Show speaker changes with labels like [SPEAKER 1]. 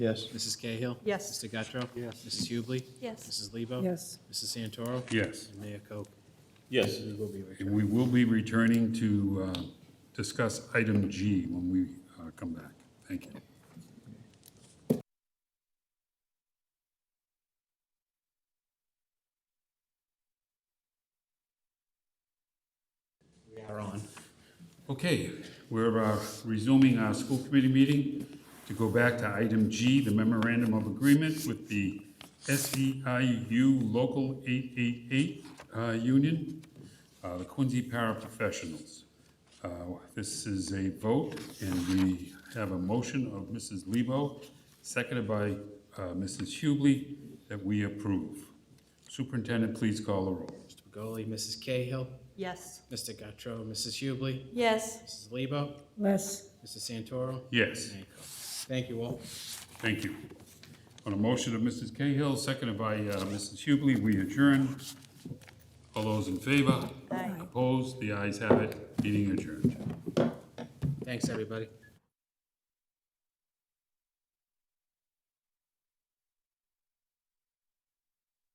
[SPEAKER 1] Yes.
[SPEAKER 2] Mrs. Cahill?
[SPEAKER 3] Yes.
[SPEAKER 2] Mr. Guttrow? Yes. Mrs. Hubley?
[SPEAKER 3] Yes.
[SPEAKER 2] Mrs. Lebo?
[SPEAKER 3] Yes.
[SPEAKER 2] Mrs. Santoro?
[SPEAKER 4] Yes.
[SPEAKER 2] And Mayor Koch.
[SPEAKER 5] Yes.
[SPEAKER 2] We will be returning.
[SPEAKER 4] And we will be returning to uh, discuss item G when we uh, come back. Thank you.
[SPEAKER 2] We are on.
[SPEAKER 4] Okay, we're uh, resuming our school committee meeting to go back to item G, the memorandum of agreement with the SEIU Local 888 uh, Union, uh, the Quincy Paraprofessionals. Uh, This is a vote, and we have a motion of Mrs. Lebo, seconded by uh, Mrs. Hubley, that we approve. Superintendent, please call the roll.
[SPEAKER 2] Mr. Pagoli, Mrs. Cahill,
[SPEAKER 3] Yes.
[SPEAKER 2] Mr. Guttrow, Mrs. Hubley,
[SPEAKER 3] Yes.
[SPEAKER 2] Mrs. Lebo,
[SPEAKER 3] Yes.
[SPEAKER 2] Mrs. Santoro?
[SPEAKER 4] Yes.
[SPEAKER 2] Mayor Koch. Thank you all.
[SPEAKER 4] Thank you. On a motion of Mrs. Cahill, seconded by uh, Mrs. Hubley, we adjourn. All those in favor?
[SPEAKER 3] Aye.
[SPEAKER 4] Opposed? The ayes have it. Meeting adjourned.
[SPEAKER 2] Thanks, everybody.